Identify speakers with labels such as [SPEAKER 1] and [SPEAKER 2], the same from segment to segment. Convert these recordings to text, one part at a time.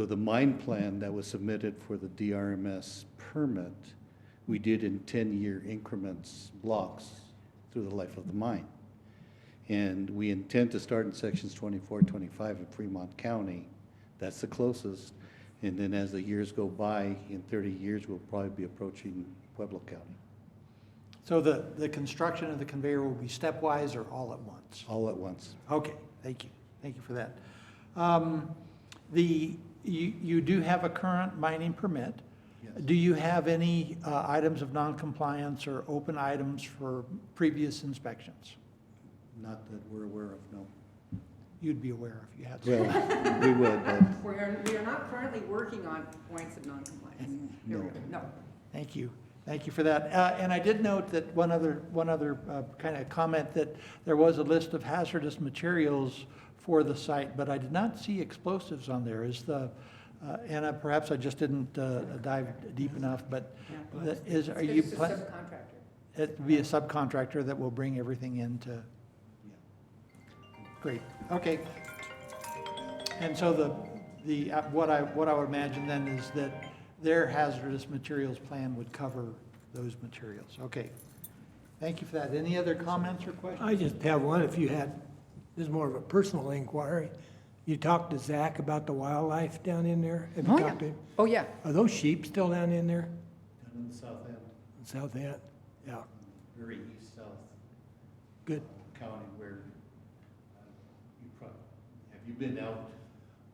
[SPEAKER 1] So the mine plan that was submitted for the DRMS permit, we did in ten-year increments blocks through the life of the mine. And we intend to start in sections 24, 25 of Fremont County. That's the closest. And then as the years go by, in thirty years, we'll probably be approaching Pueblo County,
[SPEAKER 2] So the, the construction of the conveyor will be stepwise or all at once?
[SPEAKER 1] all at once.
[SPEAKER 2] Okay, thank you, thank you for that. Um, The, you, you do have a current mining permit.
[SPEAKER 1] Yes.
[SPEAKER 2] Do you have any uh, items of noncompliance or open items for previous inspections?
[SPEAKER 1] Not that we're aware of, no.
[SPEAKER 2] You'd be aware if you had. some.
[SPEAKER 1] Well, we would, but
[SPEAKER 3] We are, we are not currently working on points of noncompliance.
[SPEAKER 2] Mm-hmm.
[SPEAKER 3] There we go. No.
[SPEAKER 2] Thank you. Thank you for that. Uh, And I did note that one other, one other kind of comment, that there was a list of hazardous materials for the site, but I did not see explosives on there. Is the, uh, Anna, perhaps I just didn't uh, dive deep enough, but
[SPEAKER 3] Yeah.
[SPEAKER 2] the- is, are you,
[SPEAKER 3] It's just a
[SPEAKER 2] pla-
[SPEAKER 3] subcontractor.
[SPEAKER 2] it'd be a subcontractor that will bring everything in to? Great, okay. And so the, the, uh, what I, what I would imagine then is that their hazardous materials plan would cover those materials, okay. Thank you for that. Any other comments or questions?
[SPEAKER 4] I just have one, if you had, this is more of a personal inquiry. You talked to Zach about the wildlife down in there? Have you
[SPEAKER 3] Oh, yeah.
[SPEAKER 4] talked to him?
[SPEAKER 3] Oh, yeah.
[SPEAKER 4] Are those sheep still down in there,
[SPEAKER 1] down in the south end,
[SPEAKER 4] in south end? Yeah,
[SPEAKER 1] very east south.
[SPEAKER 4] good.
[SPEAKER 1] county where uh, you probably, have you been out?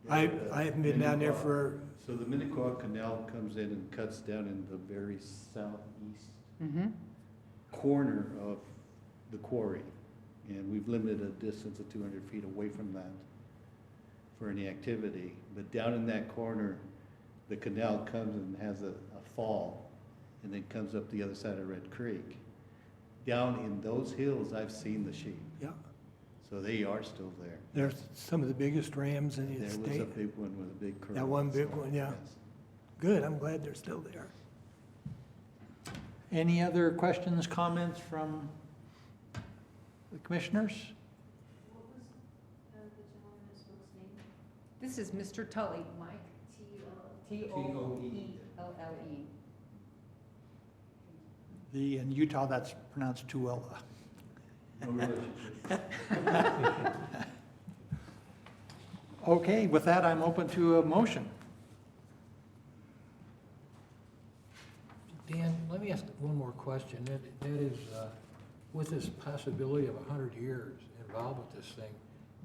[SPEAKER 4] I,
[SPEAKER 1] at, uh,
[SPEAKER 4] I haven't been down there
[SPEAKER 1] Minnequaw?
[SPEAKER 4] for,
[SPEAKER 1] So the Minnequaw Canal comes in and cuts down in the very southeast
[SPEAKER 3] Mm-hmm.
[SPEAKER 1] corner of the quarry. And we've limited a distance of two hundred feet away from that for any activity. But down in that corner, the canal comes and has a, a fall and then comes up the other side of Red Creek. Down in those hills, I've seen the sheep.
[SPEAKER 4] yeah,
[SPEAKER 1] So they are still there.
[SPEAKER 4] there's some of the biggest rams in the
[SPEAKER 1] There was a
[SPEAKER 4] state.
[SPEAKER 1] big one with a big curve.
[SPEAKER 4] That one big
[SPEAKER 1] so,
[SPEAKER 4] one, yeah.
[SPEAKER 1] yes.
[SPEAKER 4] Good, I'm glad they're still there.
[SPEAKER 2] Any other questions, comments from the commissioners?
[SPEAKER 3] This is Mr. Tully, Mike. T O E L L E.
[SPEAKER 2] The, in Utah, that's pronounced Tuella.
[SPEAKER 1] No relationship.
[SPEAKER 2] Okay, with that, I'm open to a motion.
[SPEAKER 5] Dan, let me ask one more question. That, that is, uh, with this possibility of a hundred years involved with this thing,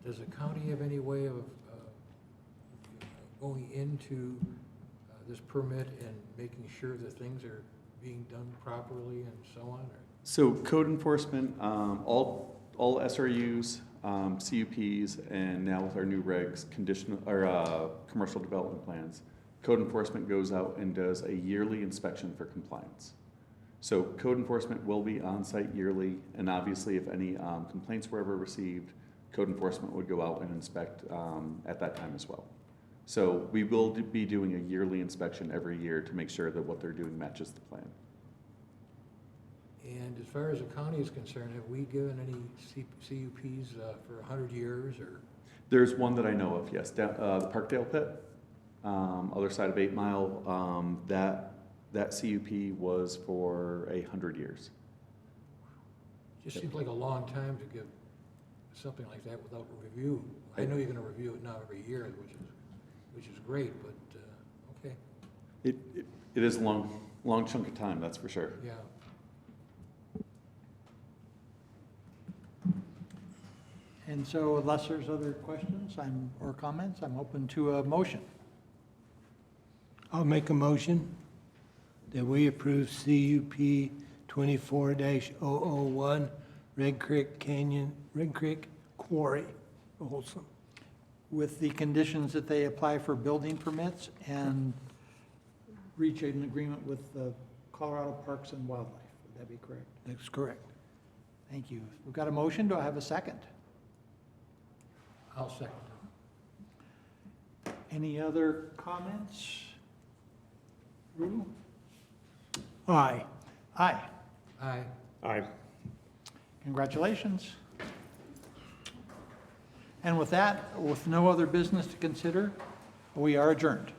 [SPEAKER 5] does the county have any way of, uh, going into, uh, this permit and making sure that things are being done properly and so on, or?
[SPEAKER 6] So code enforcement, um, all, all SRUs, um, CUPs, and now with our new regs, conditional, or, uh, commercial development plans, code enforcement goes out and does a yearly inspection for compliance. So code enforcement will be on-site yearly, and obviously if any, um, complaints were ever received, code enforcement would go out and inspect, um, at that time as well. So we will be doing a yearly inspection every year to make sure that what they're doing matches the plan.
[SPEAKER 5] And as far as the county is concerned, have we given any C- CUPs, uh, for a hundred years or?
[SPEAKER 6] There's one that I know of, yes, down, uh, the Parkdale Pit, um, other side of Eight Mile, um, that, that CUP was for a hundred years.
[SPEAKER 5] Just seems like a long time to give something like that without review. I know you're gonna review it now every year, which is, which is great, but, uh, okay,
[SPEAKER 6] It, it- it is a long, long chunk of time, that's for sure.
[SPEAKER 5] yeah.
[SPEAKER 2] And so unless there's other questions, I'm, or comments, I'm open to a motion.
[SPEAKER 4] I'll make a motion that we approve CUP twenty-four dash oh Red Creek Canyon, Red Creek Quarry, Folsom.
[SPEAKER 2] With the conditions that they apply for building permits and reach an agreement with the Colorado Parks and Wildlife. Would that be correct?
[SPEAKER 4] That's correct.
[SPEAKER 2] Thank you. We've got a motion. Do I have a second?
[SPEAKER 5] I'll second it.
[SPEAKER 2] Any other comments? Rule?
[SPEAKER 4] Aye.
[SPEAKER 2] Aye.
[SPEAKER 5] Aye.
[SPEAKER 2] Congratulations. And with that, with no other business to consider, We are adjourned.